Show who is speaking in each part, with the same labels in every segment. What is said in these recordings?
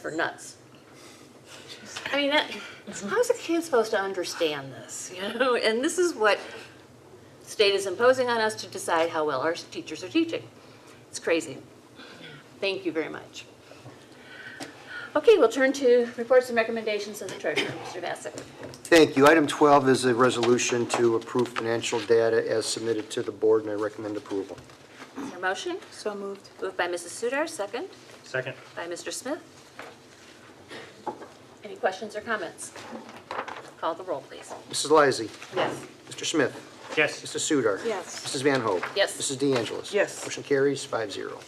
Speaker 1: for nuts. I mean, that, how's a kid supposed to understand this, you know? And this is what state is imposing on us to decide how well our teachers are teaching. It's crazy. Thank you very much. Okay, we'll turn to reports and recommendations of the treasurer, Mr. Bassett.
Speaker 2: Thank you. Item 12 is a resolution to approve financial data as submitted to the board, and I recommend approval.
Speaker 1: Is there a motion?
Speaker 3: So moved.
Speaker 1: Moved by Mrs. Sudar, second
Speaker 4: Second.
Speaker 1: by Mr. Smith. Any questions or comments? Call the roll, please.
Speaker 2: Mrs. Lysy.
Speaker 1: Yes.
Speaker 2: Mr. Smith.
Speaker 4: Yes.
Speaker 2: Mr. Sudar.
Speaker 3: Yes.
Speaker 2: Mrs. Van Hoen.
Speaker 1: Yes.
Speaker 2: Mrs. De Angelis.
Speaker 3: Yes.
Speaker 2: Motion carries five zero.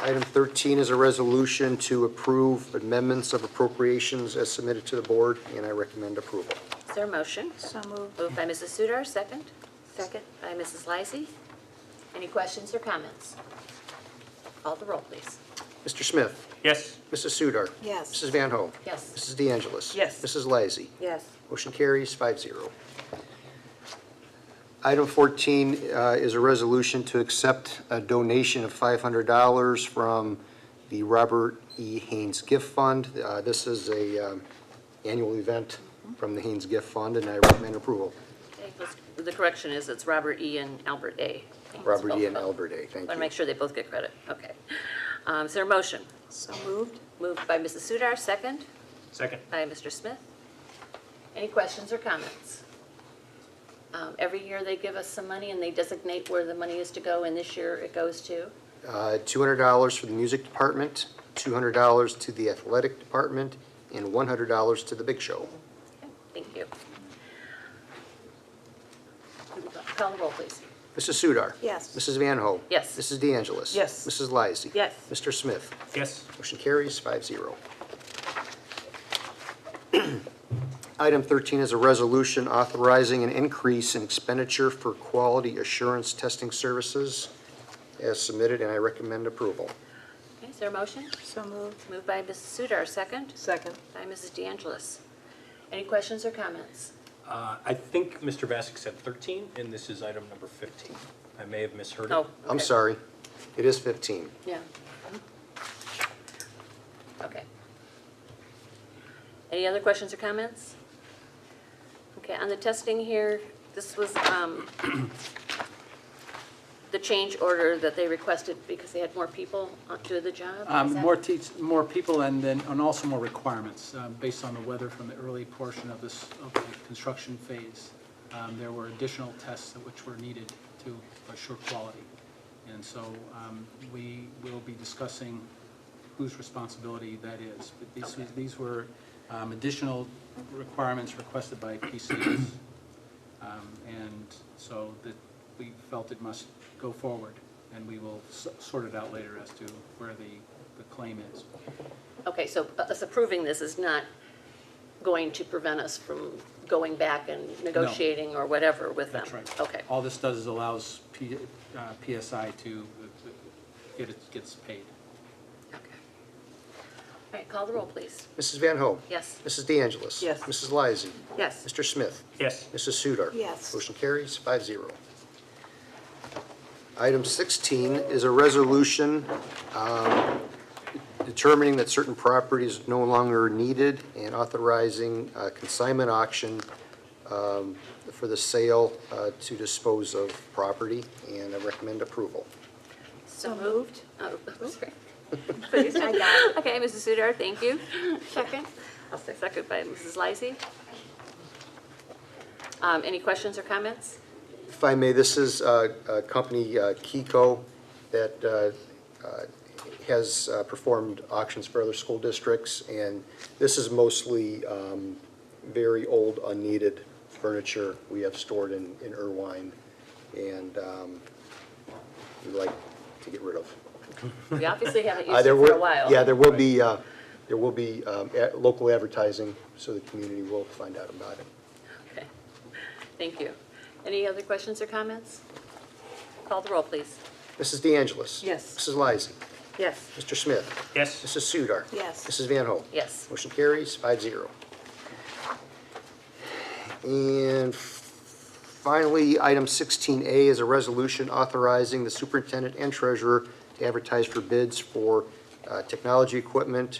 Speaker 2: Item 13 is a resolution to approve amendments of appropriations as submitted to the board, and I recommend approval.
Speaker 1: Is there a motion?
Speaker 3: So moved.
Speaker 1: Moved by Mrs. Sudar, second. Second. By Mrs. Lysy. Any questions or comments? Call the roll, please.
Speaker 2: Mr. Smith.
Speaker 4: Yes.
Speaker 2: Mrs. Sudar.
Speaker 3: Yes.
Speaker 2: Mrs. Van Hoen.
Speaker 1: Yes.
Speaker 2: Mrs. De Angelis.
Speaker 3: Yes.
Speaker 2: Mrs. Lysy.
Speaker 1: Yes.
Speaker 2: Motion carries five zero. Item 14 uh, is a resolution to accept a donation of $500 from the Robert E. Haynes Gift Fund. Uh, This is a um, annual event from the Haynes Gift Fund, and I recommend approval.
Speaker 1: The correction is it's Robert E. and Albert A.
Speaker 2: Robert E. and Albert A., thank
Speaker 1: Want to make
Speaker 2: you.
Speaker 1: sure they both get credit. Okay. Um, Is there a motion?
Speaker 3: So moved.
Speaker 1: Moved by Mrs. Sudar, second
Speaker 4: Second.
Speaker 1: by Mr. Smith. Any questions or comments? Um, Every year they give us some money and they designate where the money is to go, and this year it goes to?
Speaker 2: Uh, $200 for the music department, $200 to the athletic department, and $100 to the big show.
Speaker 1: Okay, Thank you. Call the roll, please.
Speaker 2: Mrs. Sudar.
Speaker 3: Yes.
Speaker 2: Mrs. Van Ho.
Speaker 1: Yes.
Speaker 2: Mrs. De Angelis.
Speaker 3: Yes.
Speaker 2: Mrs. Lysy.
Speaker 3: Yes.
Speaker 2: Mr. Smith.
Speaker 4: Yes.
Speaker 2: Motion carries five zero. Item 13 is a resolution authorizing an increase in expenditure for quality assurance testing services as submitted, and I recommend approval.
Speaker 1: Okay, Is there a motion?
Speaker 3: So moved.
Speaker 1: Moved by Mrs. Sudar, second
Speaker 3: Second.
Speaker 1: by Mrs. De Angelis. Any questions or comments?
Speaker 4: Uh, I think Mr. Bassick said 13, and this is item number 15. I may have misheard it.
Speaker 1: Oh.
Speaker 2: I'm
Speaker 1: okay.
Speaker 2: sorry, it is 15.
Speaker 1: Yeah. Okay. Any other questions or comments? Okay, on the testing here, this was um, the change order that they requested because they had more people uh, do the job? is
Speaker 5: Um,
Speaker 1: that-
Speaker 5: More teach, more people and then, and also more requirements, um, based on the weather from the early portion of this, of the construction phase. Um, There were additional tests that which were needed to assure quality. And so um, we will be discussing whose responsibility that is. But these, these were um, additional requirements requested by PCs. Um, And so that we felt it must go forward, and we will s- sort it out later as to where the, the claim is.
Speaker 1: Okay, so us approving this is not going to prevent us from going back and negotiating or whatever with them?
Speaker 5: That's right.
Speaker 1: Okay,
Speaker 5: All this does is allows P- uh, PSI to uh, get, it gets paid.
Speaker 1: okay. All right, call the roll, please.
Speaker 2: Mrs. Van Ho.
Speaker 1: Yes.
Speaker 2: Mrs. De Angelis.
Speaker 3: Yes.
Speaker 2: Mrs. Lysy.
Speaker 1: Yes.
Speaker 2: Mr. Smith.
Speaker 4: Yes.
Speaker 2: Mrs. Sudar.
Speaker 3: Yes.
Speaker 2: Motion carries five zero. Item 16 is a resolution um, determining that certain property is no longer needed and authorizing a consignment auction um, for the sale uh, to dispose of property, and I recommend approval.
Speaker 1: So moved. Oh, sorry. Please. Okay, Mrs. Sudar, thank you. Second? I'll say second by Mrs. Lysy. Um, Any questions or comments?
Speaker 2: If I may, this is uh, a company, uh, Kiko, that uh, uh, has uh, performed auctions for other school districts, and this is mostly um, very old, unneeded furniture we have stored in in Irvine, and um, we'd like to get rid of.
Speaker 1: We obviously haven't
Speaker 2: Uh,
Speaker 1: used it
Speaker 2: there
Speaker 1: for a
Speaker 2: will-
Speaker 1: while.
Speaker 2: Yeah, there will be, uh, there will be um, a- local advertising, so the community will find out about it.
Speaker 1: Okay, thank you. Any other questions or comments? Call the roll, please.
Speaker 2: Mrs. De Angelis.
Speaker 3: Yes.
Speaker 2: Mrs. Lysy.
Speaker 1: Yes.
Speaker 2: Mr. Smith.
Speaker 4: Yes.
Speaker 2: Mrs. Sudar.
Speaker 3: Yes.
Speaker 2: Mrs. Van Hoen.
Speaker 1: Yes.
Speaker 2: Motion carries five zero. And finally, item sixteen A is a resolution authorizing the superintendent and treasurer to advertise for bids for uh, technology equipment,